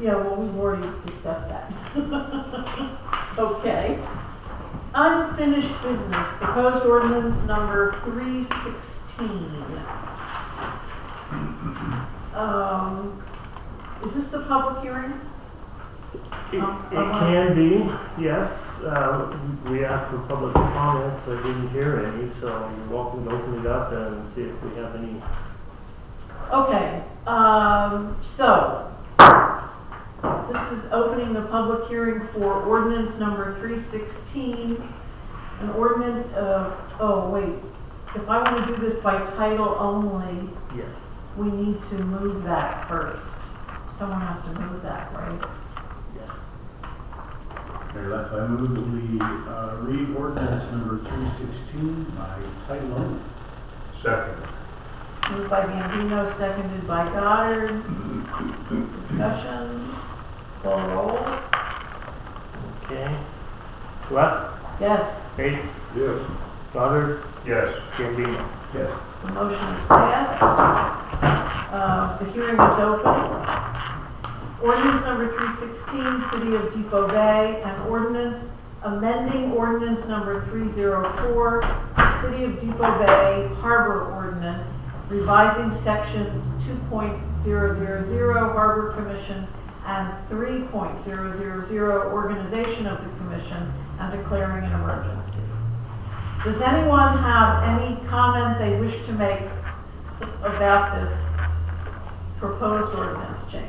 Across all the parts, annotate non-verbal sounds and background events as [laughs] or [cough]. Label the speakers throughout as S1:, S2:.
S1: Yeah, well, we've already discussed that. [laughs] Okay. Unfinished business, proposed ordinance number three sixteen. Um, is this a public hearing?
S2: It it can be, yes. Uh, We asked for public comments, I didn't hear any, so you're welcome to open it up and see if we have any.
S1: Okay, um, so, this is opening the public hearing for ordinance number three sixteen. An ordinance, uh, oh, wait, if I wanna do this by title only,
S2: Yes.
S1: we need to move that first. Someone has to move that, right?
S2: yes.
S3: Okay, left, I move that we uh, read ordinance number three sixteen by title only.
S4: Second.
S1: Moved by Gambino, seconded by Goddard. Discussion, call roll.
S2: Okay. Left,
S1: Yes,
S2: Bates,
S4: Yes.
S2: Goddard,
S4: Yes.
S2: Gambino.
S3: Yes.
S1: the motion is passed. Uh, The hearing is open. Ordinance number 316, City of Depot Bay, an ordinance amending ordinance number 304, City of Depot Bay Harbor Ordinance, revising sections 2.000 Harbor Commission and 3.000 Organization of the Commission, and declaring an emergency. Does anyone have any comment they wish to make about this proposed ordinance change?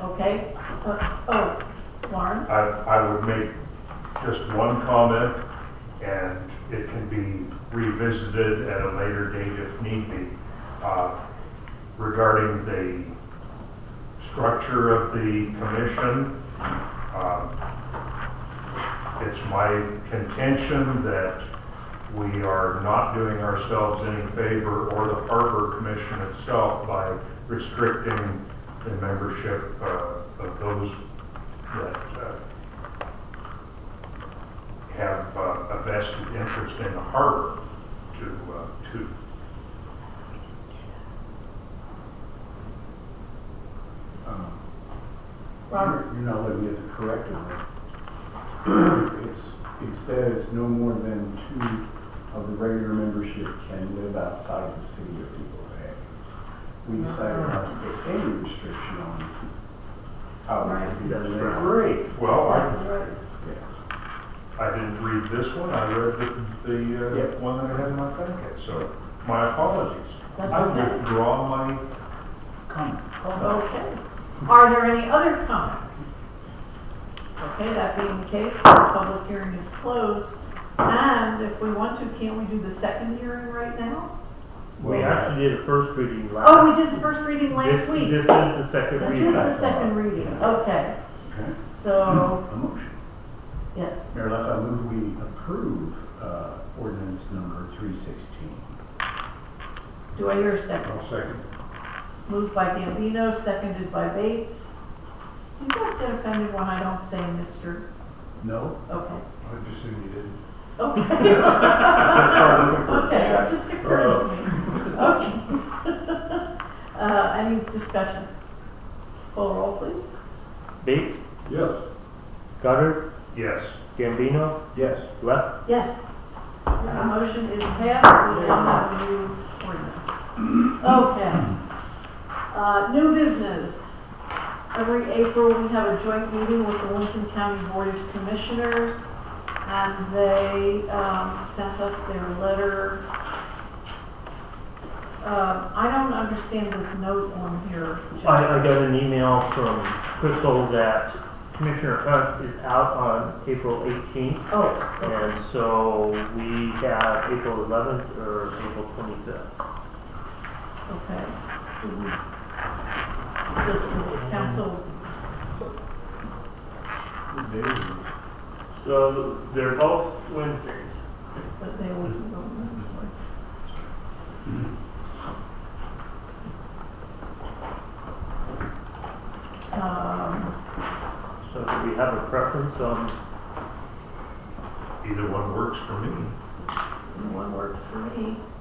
S1: Okay, uh, oh, Lauren?
S4: I, I would make just one comment, and it can be revisited at a later date if need be, uh, regarding the structure of the commission. um, It's my contention that we are not doing ourselves any favor or the Harbor Commission itself by restricting the membership uh, of those that uh, have uh, a vested interest in the harbor to, uh, to,
S3: Um,
S1: Robert?
S3: You're not looking at the correct one. [clears throat] It's, instead, it's no more than two of the regular membership can live outside the city of Depot Bay. We decided not to put any restriction on how we can be
S2: Right.
S3: Great.
S4: well, I,
S3: Yeah.
S4: I didn't read this one, I read the, the
S3: Yep.
S4: uh, one that I had in my packet, so my apologies.
S1: That's
S4: I
S1: okay.
S4: withdraw my comment.
S1: Okay. Are there any other comments? Okay, that being the case, the public hearing is closed. And if we want to, can't we do the second hearing right now?
S2: We actually did a first reading last.
S1: Oh, we did the first reading last
S2: This-
S1: week.
S2: This is the second
S1: This
S2: reading.
S1: is the second reading, okay. So,
S3: A motion.
S1: yes,
S3: Mayor Left, I move we approve uh, ordinance number 316.
S1: do I hear a second?
S4: second.
S1: Moved by Gambino, seconded by Bates. You guys get offended when I don't say Mr.
S3: No?
S1: Okay,
S4: I just assumed you didn't.
S1: okay. Okay,
S3: Okay.
S1: it just occurred to me. Okay. [laughs] Uh, any discussion? Call roll, please.
S2: Bates,
S3: Yes.
S2: Goddard,
S4: Yes.
S2: Gambino,
S3: Yes.
S2: left,
S1: Yes. The motion is passed, we now have a new ordinance. Okay. Uh, new business. Every April, we have a joint meeting with the Lincoln County Board of Commissioners, and they, um, sent us their letter. Uh, I don't understand this note on here. Jeff.
S2: I, I got an email from Crystal that Commissioner Hunt is out on April eighteenth.
S1: Oh, okay.
S2: And so we have April eleventh or April twenty-fifth.
S1: Okay. Does the council,
S2: So they're both Wednesdays.
S1: but they always go on those ones. Um,
S2: So do we have a preference on,
S4: Either one works for me.
S1: one works for me.